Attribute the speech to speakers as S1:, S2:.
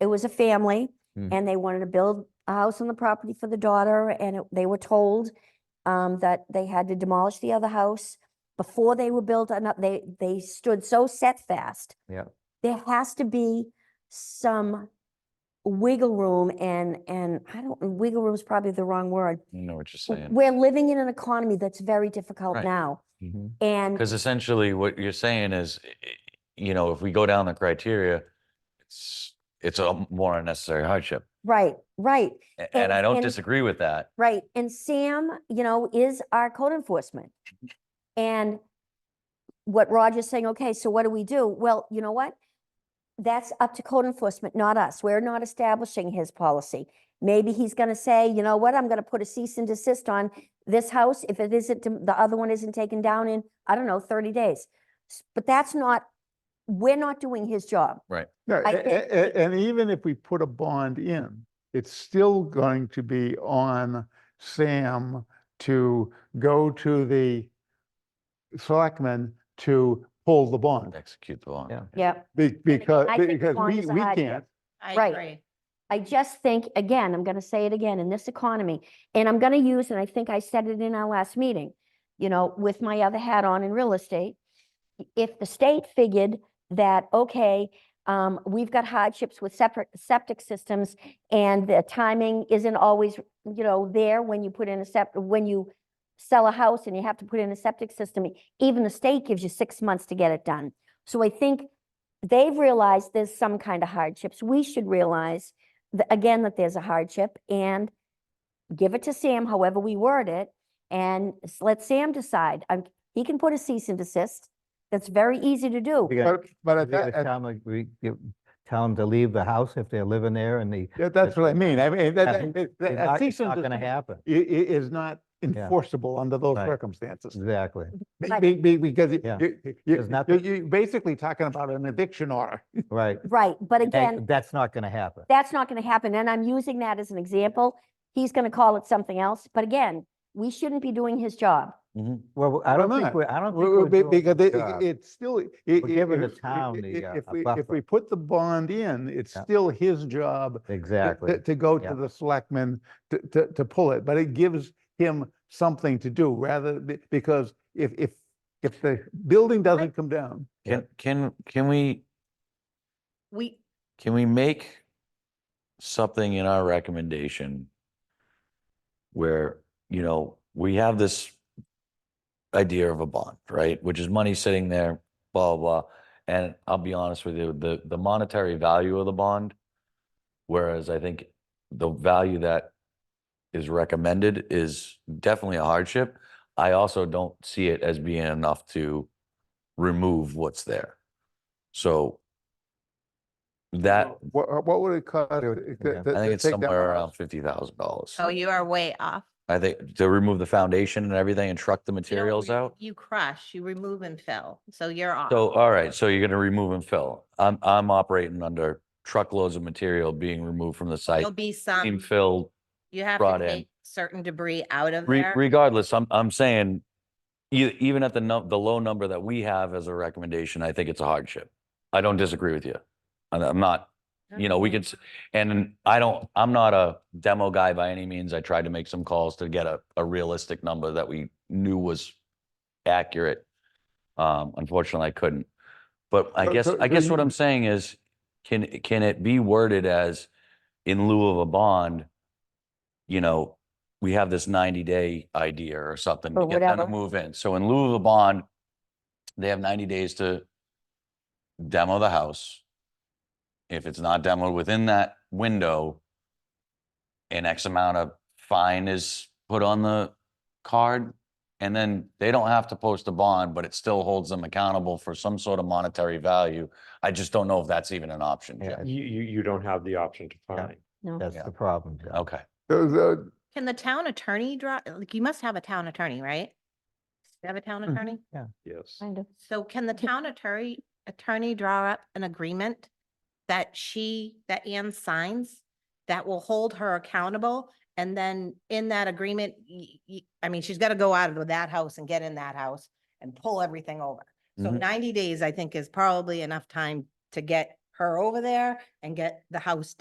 S1: it was a family
S2: Mm.
S1: and they wanted to build a house on the property for the daughter and it- they were told um, that they had to demolish the other house before they were built, ano- they, they stood so set fast.
S2: Yeah.
S1: There has to be some wiggle room and, and I don't, wiggle room is probably the wrong word.
S2: I know what you're
S1: W-
S2: saying.
S1: We're living in an economy that's very difficult
S2: Right.
S1: now.
S2: Mhm.
S1: And
S2: Because essentially what you're saying is, i- i- you know, if we go down the criteria, it's, it's a more unnecessary hardship.
S1: Right, right,
S2: A- Mm-hmm. And I
S1: And-
S2: don't
S1: and-
S2: disagree with that.
S1: right. And Sam, you know, is our code enforcement. And what Roger's saying, okay, so what do we do? Well, you know what? That's up to code enforcement, not us. We're not establishing his policy. Maybe he's gonna say, you know what, I'm gonna put a cease and desist on this house if it isn't, dem- the other one isn't taken down in, I don't know, thirty days. S- But that's not, we're not doing his job.
S3: No,
S1: I
S3: a-
S1: think-
S3: a- a- and even if we put a bond in, it's still going to be on Sam to go to the selectmen to pull the bond.
S2: Execute the law.
S4: Yeah.
S1: Yep.
S3: Be- Because,
S1: I think the
S3: because
S1: bond
S3: we,
S1: is a
S3: we
S1: hardship.
S3: can't,
S5: I
S1: Right.
S5: agree.
S1: I just think, again, I'm gonna say it again, in this economy, and I'm gonna use, and I think I said it in our last meeting, you know, with my other hat on in real estate. i- If the state figured that, okay, um, we've got hardships with separate septic systems and the timing isn't always, you know, there when you put in a septic, when you sell a house and you have to put in a septic system, even the state gives you six months to get it done. So I think they've realized there's some kind of hardships. We should realize th- again, that there's a hardship and give it to Sam, however we word it, and s- let Sam decide. Um, he can put a cease and desist. That's very easy to do.
S4: You gotta-
S3: but, but
S4: you
S3: at
S4: gotta
S3: that, at-
S4: Tell them, we, you tell 'em to leave the house if they're living there and the,
S3: yeah, that's what I mean. I mean,
S4: I
S3: that,
S4: think
S3: that-
S4: it's
S3: that- a
S4: not
S3: cease
S4: it's
S3: and
S4: not gonna
S3: desist
S4: happen.
S3: i- i- is not enforceable under those
S4: Right.
S3: circumstances.
S4: Exactly.
S3: Be-
S1: Right.
S3: be- be- Because you-
S4: Yeah.
S3: you, you,
S4: There's nothing-
S3: you're basically talking about an eviction order.
S4: Right.
S1: Right, but
S4: And
S1: again,
S4: That's not gonna happen.
S1: that's not gonna happen, and I'm using that as an example. He's gonna call it something else, but again, we shouldn't be doing his job.
S2: Mhm.
S4: Well, I
S3: Well,
S4: don't
S3: not.
S4: think, we're- I don't think.
S3: Well,
S4: we're
S3: be-
S4: doing
S3: Because
S4: the
S3: it-
S4: job.
S3: it- it's still. i- i-
S4: giving the
S3: if- i-
S4: town
S3: i-
S4: the,
S3: i-
S4: uh,
S3: If
S4: a
S3: we, if
S4: buffer.
S3: we put the bond in, it's
S4: Yeah.
S3: still his job to- to,
S4: Exactly.
S3: to go
S4: Yeah.
S3: to the selectmen to, to, to pull it, but it gives him something to do rather, be- because if, if, if the building doesn't come down,
S2: Can, can, can we,
S5: We,
S2: can we make something in our recommendation where, you know, we have this idea of a bond, right? Which is money sitting there, blah, blah. blah. And I'll be honest with you, the, the monetary value of the bond, whereas I think the value that is recommended is definitely a hardship. I also don't see it as being enough to remove what's there. So that,
S3: what, what would it cost? to- to-
S4: yeah.
S3: to-
S2: I think
S3: to
S2: it's
S3: take down the
S2: somewhere
S3: house?
S2: around fifty thousand dollars.
S5: oh, you are way off.
S2: I think to remove the foundation and everything and truck the
S5: You don't
S2: materials
S5: re-
S2: out.
S5: You crush, you remove and fill, so you're off.
S2: So, all right, so you're gonna remove and fill. I'm, I'm operating under truckloads of material being removed from the site,
S5: There'll be
S2: being
S5: some,
S2: filled.
S5: you have to
S2: brought in.
S5: take certain debris out of
S2: Re-
S5: there.
S2: Regardless, I'm, I'm saying, e- even at the num, the low number that we have as a recommendation, I think it's a hardship. I don't disagree with you. And I'm not you know, we could, s- and I don't, I'm not a demo guy by any means. I tried to make some calls to get a, a realistic number that we knew was accurate. Um, unfortunately, I couldn't. But I
S3: So-
S2: guess,
S3: so-
S2: I
S3: so
S2: guess what
S3: you-
S2: I'm saying is, can, can it be worded as in lieu of a bond? You know, we have this ninety day idea or something to
S1: Or
S2: get them to
S1: whatever.
S2: move in. So in lieu of a bond, they have ninety days to demo the house. If it's not demoed within that window, an X amount of fine is put on the card. And then they don't have to post a bond, but it still holds them accountable for some sort of monetary value. I just don't know if that's even an option,
S4: Yeah,
S2: Jim.
S6: You, you, you don't have the option to find.
S4: That's
S2: Yeah.
S4: the problem. John.
S2: Okay.
S3: Those, uh,
S5: Can the town attorney draw, like, you must have a town attorney, right? Do you Have a town
S2: Mm-hmm.
S3: Mhm.
S5: attorney?
S6: Yes.
S1: Kind of.
S5: So can the town attorney, attorney draw up an agreement that she, that Ann signs, that will hold her accountable? And then in that agreement, y- y- I mean, she's got to go out of that house and get in that house and pull everything over. So
S2: Mhm.
S5: ninety days, I think, is probably enough time to get her over there and get the house